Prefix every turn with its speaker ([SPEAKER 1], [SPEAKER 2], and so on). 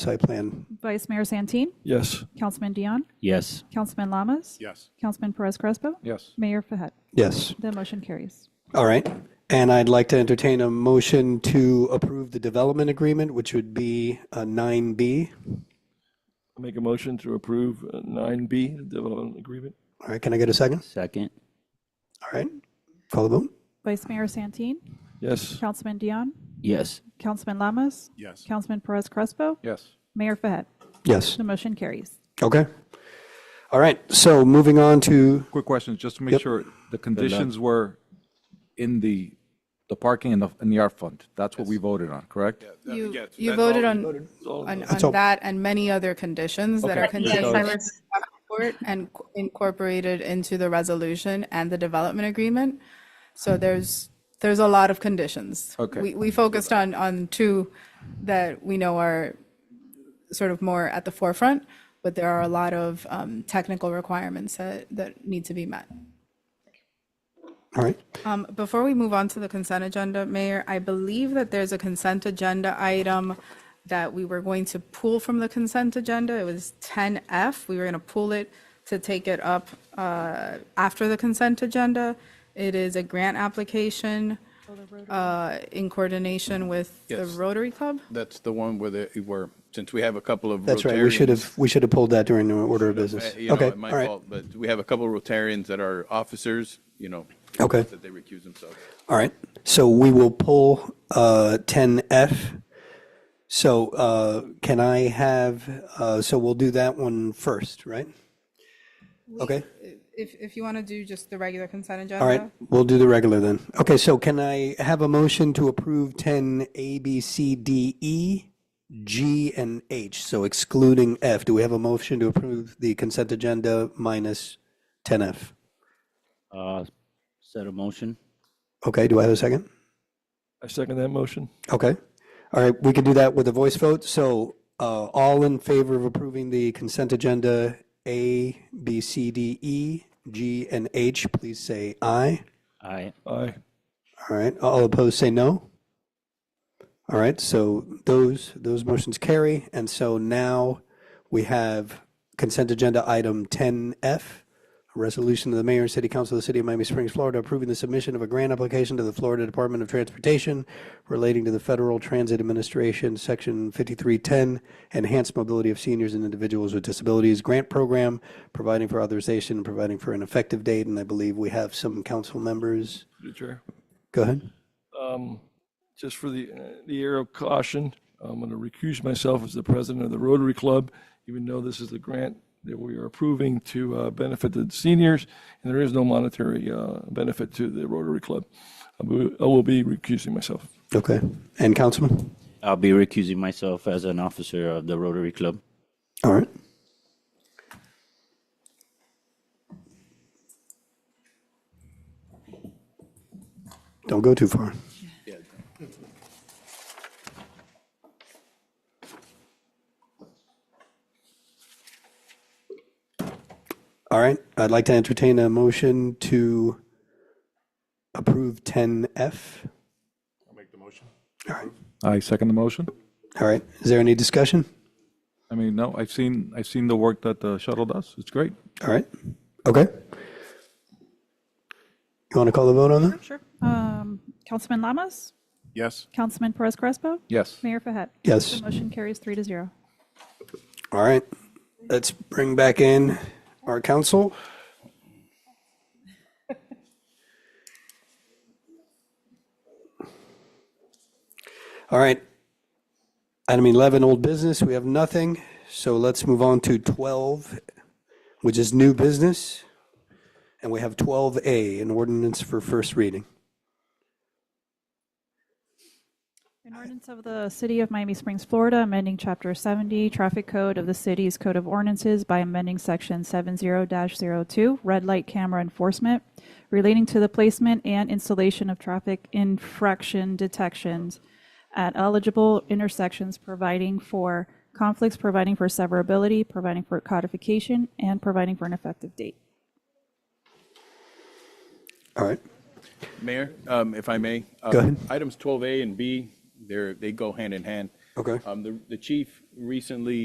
[SPEAKER 1] site plan.
[SPEAKER 2] Vice Mayor Santeen,
[SPEAKER 1] Yes.
[SPEAKER 2] Councilman Dion,
[SPEAKER 3] Yes.
[SPEAKER 2] Councilman Lamas,
[SPEAKER 4] Yes.
[SPEAKER 2] Councilman Perez Crespo,
[SPEAKER 4] Yes.
[SPEAKER 2] Mayor Fahed.
[SPEAKER 1] Yes.
[SPEAKER 2] The motion carries.
[SPEAKER 1] All right. And I'd like to entertain a motion to approve the development agreement, which would be uh, 9B.
[SPEAKER 5] Make a motion to approve uh, 9B, the development agreement?
[SPEAKER 1] All right, can I get a second?
[SPEAKER 3] Second.
[SPEAKER 1] All right. Call the vote.
[SPEAKER 2] Vice Mayor Santeen,
[SPEAKER 5] Yes.
[SPEAKER 2] Councilman Dion,
[SPEAKER 3] Yes.
[SPEAKER 2] Councilman Lamas,
[SPEAKER 4] Yes.
[SPEAKER 2] Councilman Perez Crespo,
[SPEAKER 4] Yes.
[SPEAKER 2] Mayor Fahed.
[SPEAKER 1] Yes.
[SPEAKER 2] The motion carries.
[SPEAKER 1] Okay. All right. So moving on to,
[SPEAKER 4] Quick question, just to make sure, the conditions were in the, the parking and the, and the art fund. That's what we voted on, correct?
[SPEAKER 6] You, you voted on, on,
[SPEAKER 1] That's all.
[SPEAKER 6] on that and many other conditions that are contained in the report and co- incorporated into the resolution and the development agreement. So there's, there's a lot of conditions.
[SPEAKER 4] Okay.
[SPEAKER 6] We, we focused on, on two that we know are sort of more at the forefront, but there are a lot of, um, technical requirements that, that need to be met.
[SPEAKER 1] all right.
[SPEAKER 6] Um, Before we move on to the consent agenda, Mayor, I believe that there's a consent agenda item that we were going to pull from the consent agenda. It was 10F. We were going to pull it to take it up uh, after the consent agenda. It is a grant application uh, in coordination with the
[SPEAKER 7] Yes.
[SPEAKER 6] Rotary Club.
[SPEAKER 7] That's the one where they were, since we have a couple of.
[SPEAKER 1] That's right. We should
[SPEAKER 7] Rotarians,
[SPEAKER 1] have, we should have pulled that during the order of business.
[SPEAKER 7] uh, You
[SPEAKER 1] Okay.
[SPEAKER 7] know,
[SPEAKER 1] All
[SPEAKER 7] my
[SPEAKER 1] right.
[SPEAKER 7] fault, but we have a couple of Rotarians that are officers, you know.
[SPEAKER 1] Okay.
[SPEAKER 7] That they recuse themselves.
[SPEAKER 1] All right. So we will pull uh, 10F. So uh, can I have, uh, so we'll do that one first, right? Okay.
[SPEAKER 6] If, if you want to do just the regular consent agenda.
[SPEAKER 1] All right. We'll do the regular then. Okay. So can I have a motion to approve 10A, B, C, D, E, G, and H? So excluding F. Do we have a motion to approve the consent agenda minus 10F?
[SPEAKER 3] Uh, set a motion.
[SPEAKER 1] Okay. Do I have a second?
[SPEAKER 5] I second that motion.
[SPEAKER 1] Okay. All right, we can do that with a voice vote. So uh, all in favor of approving the consent agenda A, B, C, D, E, G, and H, please say aye.
[SPEAKER 3] Aye.
[SPEAKER 5] Aye.
[SPEAKER 1] All right, all opposed, say no. All right, so those, those motions carry. And so now we have consent agenda item 10F, a resolution of the mayor and city council of the city of Miami Springs, Florida, approving the submission of a grant application to the Florida Department of Transportation relating to the Federal Transit Administration, Section 5310, Enhanced Mobility of Seniors and Individuals with Disabilities Grant Program, providing for authorization and providing for an effective date. And I believe we have some council members.
[SPEAKER 5] Through the chair.
[SPEAKER 1] Go ahead.
[SPEAKER 5] Just for the, uh, the air of caution, I'm going to recuse myself as the president of the Rotary Club, even though this is the grant that we are approving to uh, benefit the seniors, and there is no monetary uh, benefit to the Rotary Club. I will- I will be recusing myself.
[SPEAKER 1] Okay. And Councilman?
[SPEAKER 3] I'll be recusing myself as an officer of the Rotary Club.
[SPEAKER 1] All right. Don't go too far. All right, I'd like to entertain a motion to approve 10F.
[SPEAKER 4] I second the motion.
[SPEAKER 1] All right, is there any discussion?
[SPEAKER 4] I mean, no, I've seen, I've seen the work that the shuttle does. It's great.
[SPEAKER 1] All right. Okay. You want to call the vote on that?
[SPEAKER 2] Sure. Um, Councilman Lamas,
[SPEAKER 7] Yes.
[SPEAKER 2] Councilman Perez Crespo,
[SPEAKER 4] Yes.
[SPEAKER 2] Mayor Fahed.
[SPEAKER 1] Yes.
[SPEAKER 2] The motion carries three to zero.
[SPEAKER 1] All right. Let's bring back in our council. All right. Item 11, old business. We have nothing. So let's move on to 12, which is new business. And we have 12A, an ordinance for first reading.
[SPEAKER 2] An ordinance of the City of Miami Springs, Florida, amending Chapter 70 Traffic Code of the City's Code of Ordinances by amending Section 70-02 Red Light Camera Enforcement relating to the placement and installation of traffic infraction detections at eligible intersections, providing for conflicts, providing for severability, providing for codification, and providing for an effective date.
[SPEAKER 1] All right.
[SPEAKER 7] Mayor, um, if I may. uh,
[SPEAKER 1] Go ahead.
[SPEAKER 7] Items 12A and B, they're, they go hand in hand.
[SPEAKER 1] Okay.
[SPEAKER 7] Um, the, the chief recently